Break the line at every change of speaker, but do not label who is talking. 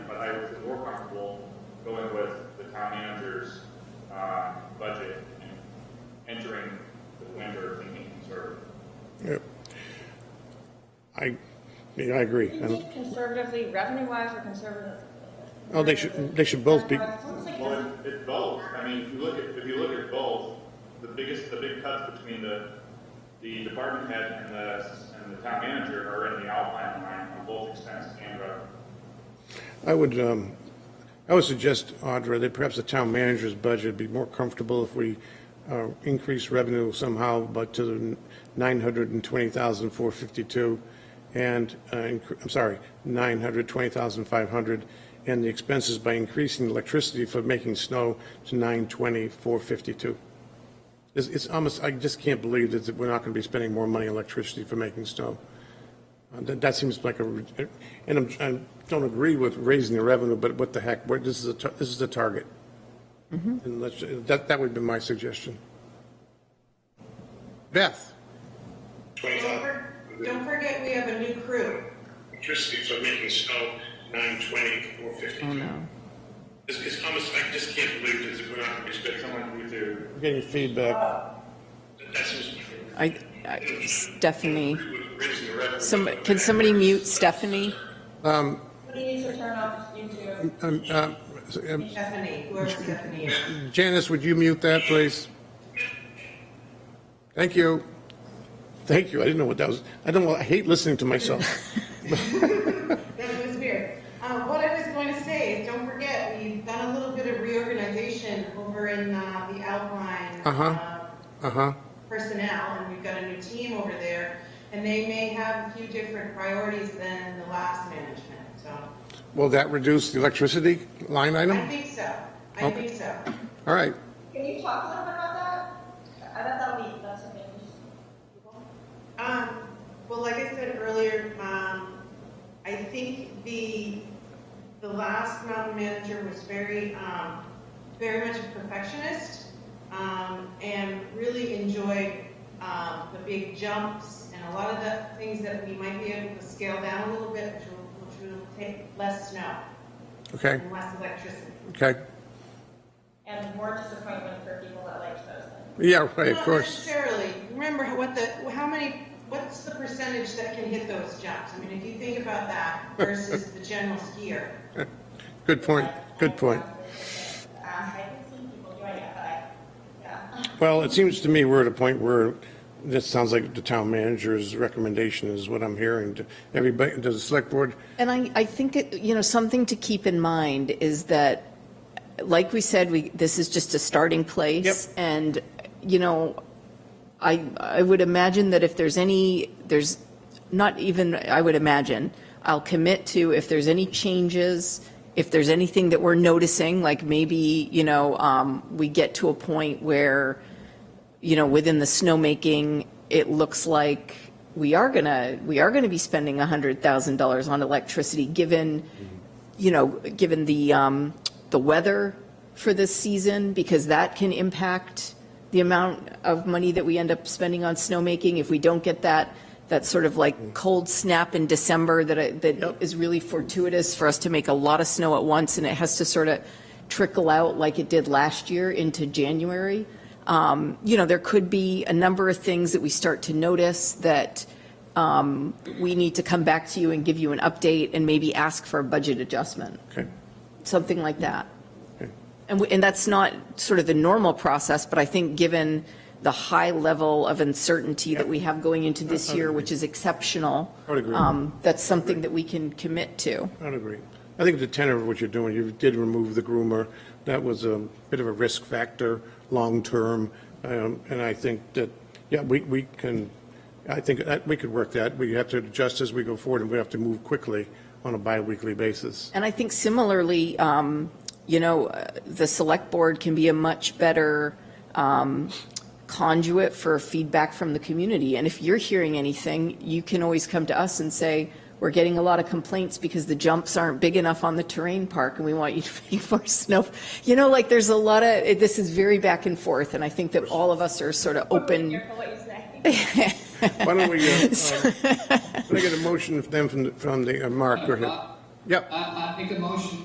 town manager's, uh, budget and entering the winter being conservative.
Yep. I, yeah, I agree. Um, I
Isn't
don't-
it Conservatively, revenue-wise, or conservative?
Oh, they should, they should both be,
Well, it- it's both. I mean, if you look at, if you look at both, the biggest, the big cuts between the, the department head and the, and the town manager are in the outline line on both expenses and revenue.
I would, um, I would suggest, Audra, that perhaps the town manager's budget would be more comfortable if we, uh, increase revenue somehow, but to the nine hundred and twenty thousand, four fifty-two, and, uh, incre- I'm sorry, nine hundred, twenty thousand, five hundred, and the expenses by increasing electricity for making snow to nine twenty, four fifty-two. It's, it's almost, I just can't believe that we're not going to be spending more money on electricity for making snow. Uh, That, that seems like a, re- and I'm, I don't agree with raising the revenue, but what the heck, where, this is a, tar- this is a target. And let's, that, that would be my suggestion. Beth?
Don't for- Don't forget, we have a new crew.
electricity for making snow nine twenty four fifty.
Oh, no.
It's, it's almost, I just can't believe this, we're not gonna be spending, so
Someone who do,
We're Getting feedback.
much. that's just.
I, I, Stephanie,
Raising the revenue.
some, can somebody mute Stephanie?
He needs to turn off YouTube.
Um, um, so, um,
Stephanie, whoever Stephanie is.
Janice, would you mute that, please? Thank you. Thank you, I didn't know what that was, I don't, I hate listening to myself.
That was weird. Uh, what I was going to say is, don't forget, we've done a little bit of reorganization over in, uh, the outline.
Uh-huh. Uh-huh,
Personnel, and we've got a new team over there, and they may have a few different priorities than the last management, so.
will that reduce the electricity line
I
item?
think so. I
Okay.
think so.
All right,
Can you talk a little bit about that? I bet that'll be, that's amazing.
Um, well, like I said earlier, um, I think the, the last mountain manager was very, um, very much a perfectionist, um, and really enjoyed, um, the big jumps and a lot of the things that we might be able to scale down a little bit, which will, which will take less snow
okay,
and less electricity.
okay.
And more disappointment for people that like those things.
Yeah, right, of
Not
course.
necessarily. Remember what the, how many, what's the percentage that can hit those jumps? I mean, if you think about that versus the general skier.
Good point, good point.
Um, I can see people doing it, but I, yeah.
Well, it seems to me we're at a point where this sounds like the town manager's recommendation is what I'm hearing. to Everybody, does the select board,
And I, I think, it- you know, something to keep in mind is that, like we said, we, this is just a starting place.
Yep.
And, you know, I, I would imagine that if there's any, there's not even, I would imagine, I'll commit to if there's any changes, if there's anything that we're noticing, like maybe, you know, um, we get to a point where, you know, within the snowmaking, it looks like we are gonna, we are gonna be spending $100,000 on electricity, given, you know, given the, um, the weather for this season, because that can impact the amount of money that we end up spending on snowmaking. If we don't get that, that sort of like cold snap in December that, I- that is really fortuitous for us to make a lot of snow at once, and it has to sort of trickle out like it did last year into January. Um, You know, there could be a number of things that we start to notice that um, we need to come back to you and give you an update and maybe ask for a budget adjustment,
okay,
something like that.
okay.
And, we- and that's not sort of the normal process, but I think given the high level of uncertainty that we have going into this year, which is exceptional.
I would agree.
um, That's something that we can commit to.
I would agree. I think the tenor of what you're doing, you did remove the groomer. That was a bit of a risk factor, long-term. Um, And I think that, yeah, we, we can, I think that we could work that. We have to adjust as we go forward and we have to move quickly on a bi-weekly basis.
And I think similarly, um, you know, uh, the select board can be a much better um, conduit for feedback from the community. And if you're hearing anything, you can always come to us and say, we're getting a lot of complaints because the jumps aren't big enough on the terrain park and we want you to make more snow. You know, like there's a lot of, it- this is very back and forth and I think that all of us are sort of
Mm.
Be
open.
careful what you say.
Why don't we, uh, um, can I get a motion then from, the- from the, uh, Mark, go ahead. Yep.
I, I make a motion